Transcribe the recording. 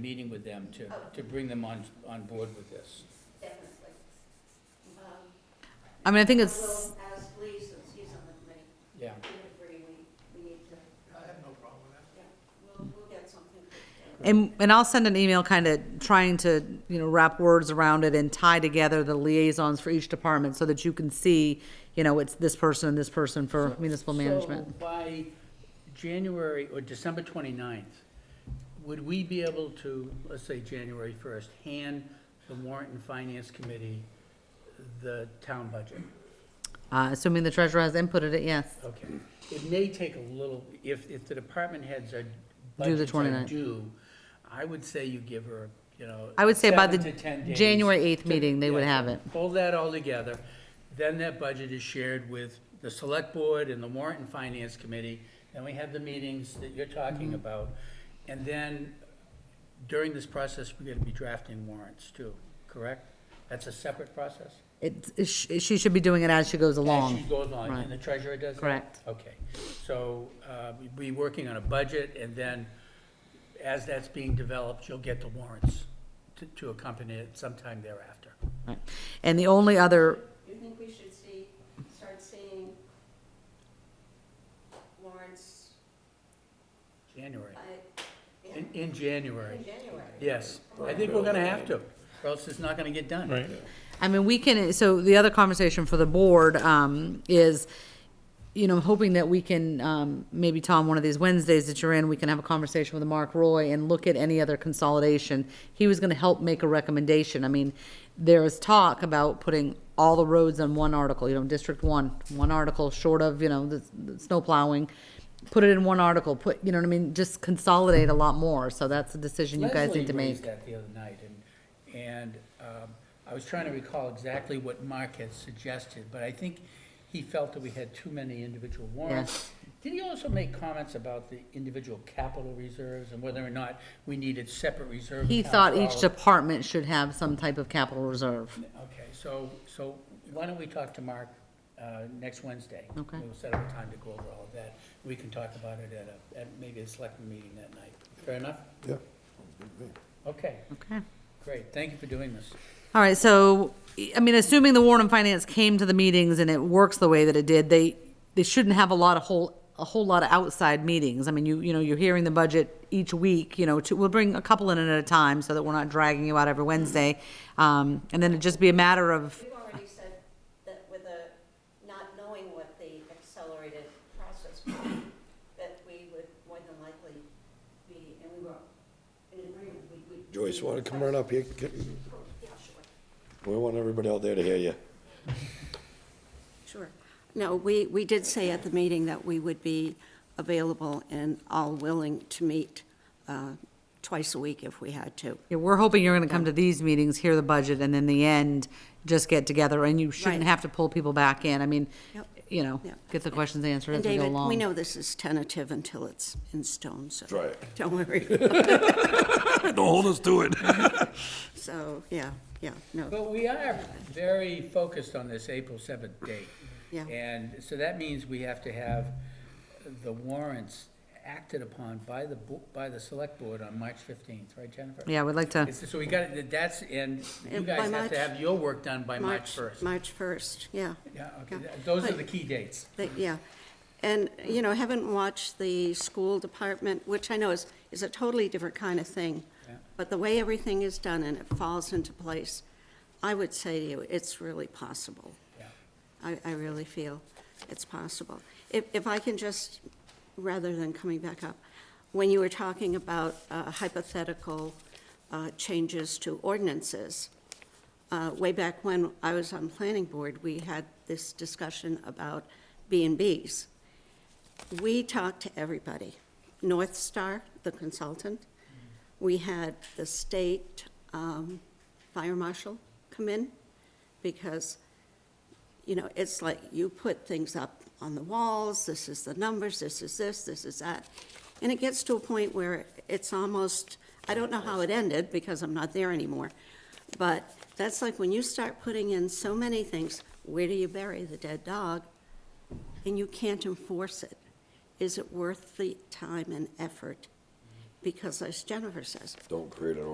meeting with them to, to bring them on, on board with this. Definitely. Um, I mean, I think I it's, will ask Lee, since he's on the committee, Yeah, he would agree, we, we need to, I have no problem with that. yeah, we'll, we'll get something. put together. and, and I'll send an email kind of trying to, you know, wrap words around it and tie together the liaisons for each department so that you can see, you know, it's this person and this person for municipal management. So by January or December 29th, would we be able to, let's say January 1st, hand the warrant and finance committee the town budget? Uh, assuming the treasurer has inputted it, yes. Okay. It may take a little, if, if the department heads are, the budgets are 29th. due, I would say you give her, you know. I would say by seven the to 10 days January 8th to- meeting, they would yeah, have it. Pull that all together, then that budget is shared with the select board and the warrant and finance committee. Then we have the meetings that you're Mm-hmm. talking about. And then during this process, we're gonna be drafting warrants too, correct? That's a separate process? It, it sh- she should be doing it as she goes As she along. goes along, Right. and the treasurer does that? Correct. Okay, so uh, we'd be working on a budget, and then as that's being developed, you'll get the warrants to- to accompany it sometime thereafter. Right. And the only other, You think we should see, start seeing warrants January, by, yeah, in, in January, in January? yes. I think we're gonna have to, or else it's not gonna get done. Right. I mean, we can, so the other conversation for the board, um, is, you know, hoping that we can, um, maybe Tom, one of these Wednesdays that you're in, we can have a conversation with Mark Roy and look at any other consolidation. He was gonna help make a recommendation. I mean, there is talk about putting all the roads on one article, you know, District One, one article, short of, you know, the, the snow plowing. Put it in one article, put, you know what I mean, just consolidate a lot more, so that's a decision you guys need to Leslie make. raised that the other night, and, and um, I was trying to recall exactly what Mark had suggested, but I think he felt that we had too many individual warrants. Did he also make comments about the individual capital reserves and whether or not we needed separate reserve He accounts thought for each all of- department should have some type of capital reserve. Okay, so, so why don't we talk to Mark uh, next Wednesday? Okay. We'll set up a time to go over all of that. We can talk about it at a, at maybe a selectman meeting that night. Fair enough? Yeah. Okay, Okay. great. Thank you for doing this. All right, so, I mean, assuming the Warren and Finance came to the meetings and it works the way that it did, they, they shouldn't have a lot of whole, a whole lot of outside meetings. I mean, you, you know, you're hearing the budget each week, you know, to, we'll bring a couple in at a time so that we're not dragging you out every Wednesday. Um, and then it'd just be a matter of, We've already said that with a, not knowing what the accelerated process would be, that we would more than likely be, and we were in agreement, we would. Joyce, want to come right up here? Get- Yeah, sure. We want everybody out there to hear you. Sure. No, we, we did say at the meeting that we would be available and all willing to meet uh, twice a week if we had to. yeah, we're hoping you're gonna come to these meetings, hear the budget, and then the end, just get together, and you shouldn't Right. have to pull people back in. I mean, Yep. you know, Yep. get the questions answered And as we go David, along. we know this is tentative until it's in stone, so. Try it. Don't worry. Don't hold us to it. So, yeah, yeah, no, But we are very focused on this April 7th date. Yeah. And so that means we have to have the warrants acted upon by the, bo- by the select board on March 15th, right, Jennifer? Yeah, we'd like to. It's- So we got, that's, and you And by guys have to March- have your work done by March March, 1st. March 1st, yeah. Yeah, okay, yeah. th- those are But- the key dates. But, yeah. And, you know, I haven't watched the school department, which I know is, is a totally different kind of thing. Yeah. But the way everything is done and it falls into place, I would say to you, it's really possible. Yeah. I, I really feel it's possible. If, if I can just, rather than coming back up, when you were talking about uh, hypothetical uh, changes to ordinances, uh, way back when I was on planning board, we had this discussion about B and Bs. We talked to everybody, North Star, the consultant. We had the state um, fire marshal come in because, you know, it's like you put things up on the walls, this is the numbers, this is this, this is that. And it gets to a point where it's almost, I don't know how it ended because I'm not there anymore. But that's like when you start putting in so many things, where do you bury the dead dog? And you can't enforce it. Is it worth the time and effort? because as Jennifer says, Don't create an